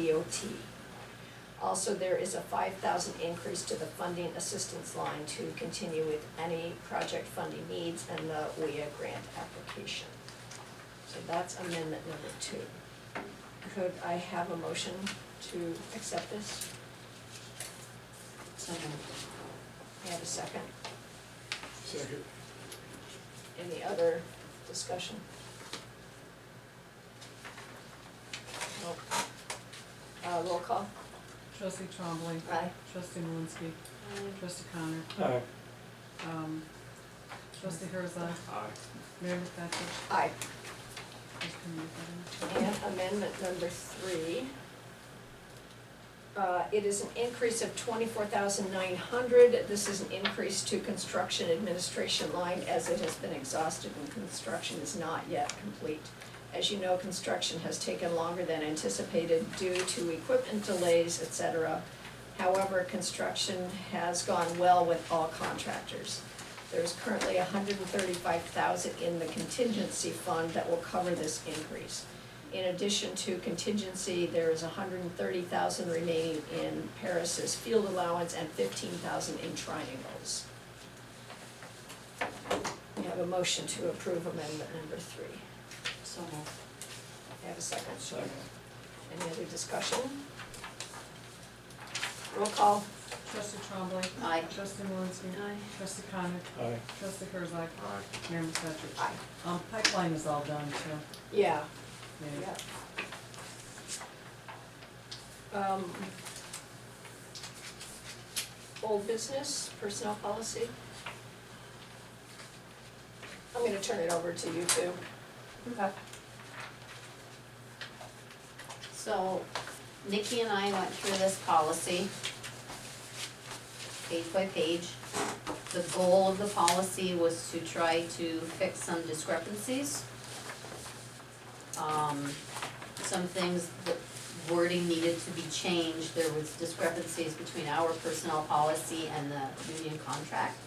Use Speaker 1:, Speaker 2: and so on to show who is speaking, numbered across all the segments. Speaker 1: DOT. Also, there is a five thousand increase to the funding assistance line to continue with any project funding needs and the WIA grant application. So that's amendment number two. Could I have a motion to accept this?
Speaker 2: So moved.
Speaker 1: May I have a second?
Speaker 3: Second.
Speaker 1: Any other discussion? Nope. Uh, roll call?
Speaker 4: Trustee Trombley.
Speaker 1: Aye.
Speaker 4: Trustee Malinsky. Trustee Connor.
Speaker 3: Aye.
Speaker 4: Um, trustee Herzog.
Speaker 3: Aye.
Speaker 4: Mayor McFetrich.
Speaker 1: Aye.
Speaker 4: Trustee McFetrich.
Speaker 1: And amendment number three. Uh, it is an increase of twenty-four thousand nine hundred. This is an increase to construction administration line as it has been exhausted and construction is not yet complete. As you know, construction has taken longer than anticipated due to equipment delays, et cetera. However, construction has gone well with all contractors. There's currently hundred and thirty-five thousand in the contingency fund that will cover this increase. In addition to contingency, there is hundred and thirty thousand remaining in Paris's field allowance and fifteen thousand in triangles. We have a motion to approve amendment number three.
Speaker 2: So moved.
Speaker 1: May I have a second?
Speaker 3: Second.
Speaker 1: Any other discussion? Roll call.
Speaker 4: Trustee Trombley.
Speaker 2: Aye.
Speaker 4: Trustee Malinsky. Trustee Connor.
Speaker 3: Aye.
Speaker 4: Trustee Herzog.
Speaker 3: Aye.
Speaker 4: Mayor McFetrich.
Speaker 1: Aye.
Speaker 4: Um, pipeline is all done too.
Speaker 1: Yeah,
Speaker 4: Yeah.
Speaker 1: yeah. Um, Old business, personnel policy. I'm gonna turn it over to you two.
Speaker 2: Okay. So Nikki and I went through this policy, page by page. The goal of the policy was to try to fix some discrepancies. Um, some things, the wording needed to be changed, there was discrepancies between our personnel policy and the union contract.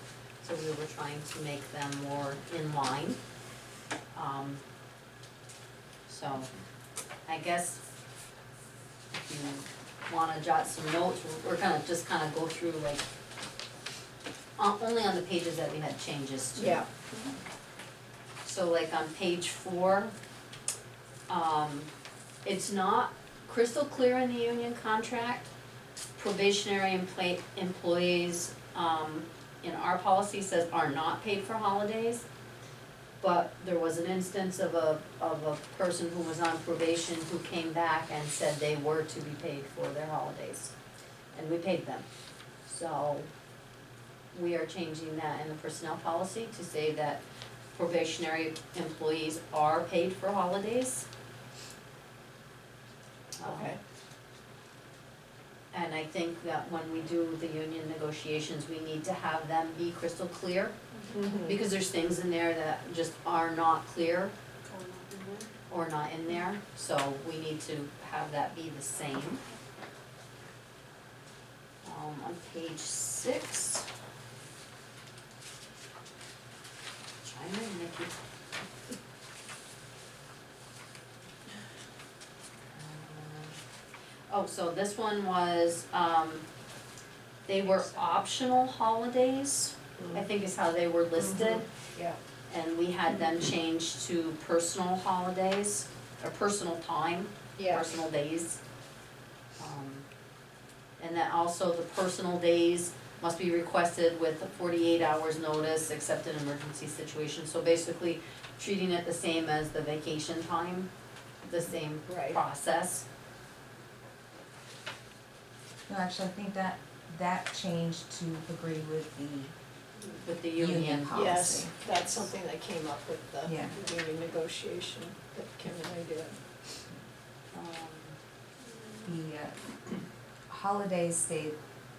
Speaker 2: So we were trying to make them more in line. Um, so, I guess if you wanna jot some notes, we're- we're gonna just kinda go through like, on, only on the pages that we had changes to.
Speaker 1: Yeah,
Speaker 2: So like on page four, um, it's not crystal clear in the union contract. Probationary employ- employees, um, in our policy says are not paid for holidays. But there was an instance of a, of a person who was on probation who came back and said they were to be paid for their holidays. And we paid them. So we are changing that in the personnel policy to say that probationary employees are paid for holidays. Um,
Speaker 1: Okay.
Speaker 2: And I think that when we do the union negotiations, we need to have them be crystal clear,
Speaker 1: mhm,
Speaker 2: because there's things in there that just are not clear or not in there, so we need to have that be the same. Um, on page six. Chime in, Nikki. Um, Oh, so this one was, um, they were optional holidays, I think is how they were listed.
Speaker 1: yeah,
Speaker 2: And we had them change to personal holidays, or personal time,
Speaker 1: yeah,
Speaker 2: personal days. Um, And then also the personal days must be requested with a forty-eight hours notice, except in emergency situations. So basically, treating it the same as the vacation time, the same
Speaker 1: Right.
Speaker 2: process.
Speaker 5: No, actually, I think that, that changed to agree with the
Speaker 2: With the
Speaker 5: union
Speaker 2: union,
Speaker 5: policy.
Speaker 1: yes, that's something that came up with
Speaker 5: Yeah.
Speaker 1: the union negotiation that Kim and I did.
Speaker 2: um,
Speaker 5: The uh, holidays stayed,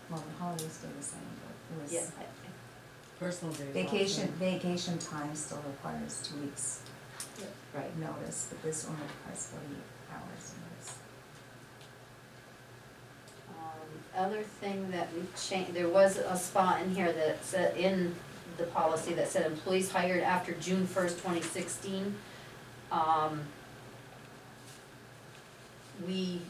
Speaker 5: well, the holidays stayed the same, but it
Speaker 2: yeah,
Speaker 5: was
Speaker 2: I-
Speaker 4: Personal days. all
Speaker 5: vacation,
Speaker 4: done.
Speaker 5: vacation time still requires two weeks
Speaker 2: I- right.
Speaker 5: notice, but this one requires forty-eight hours notice.
Speaker 2: Um, other thing that we changed, there was a spot in here that said, in the policy that said employees hired after June first, twenty sixteen. Um, we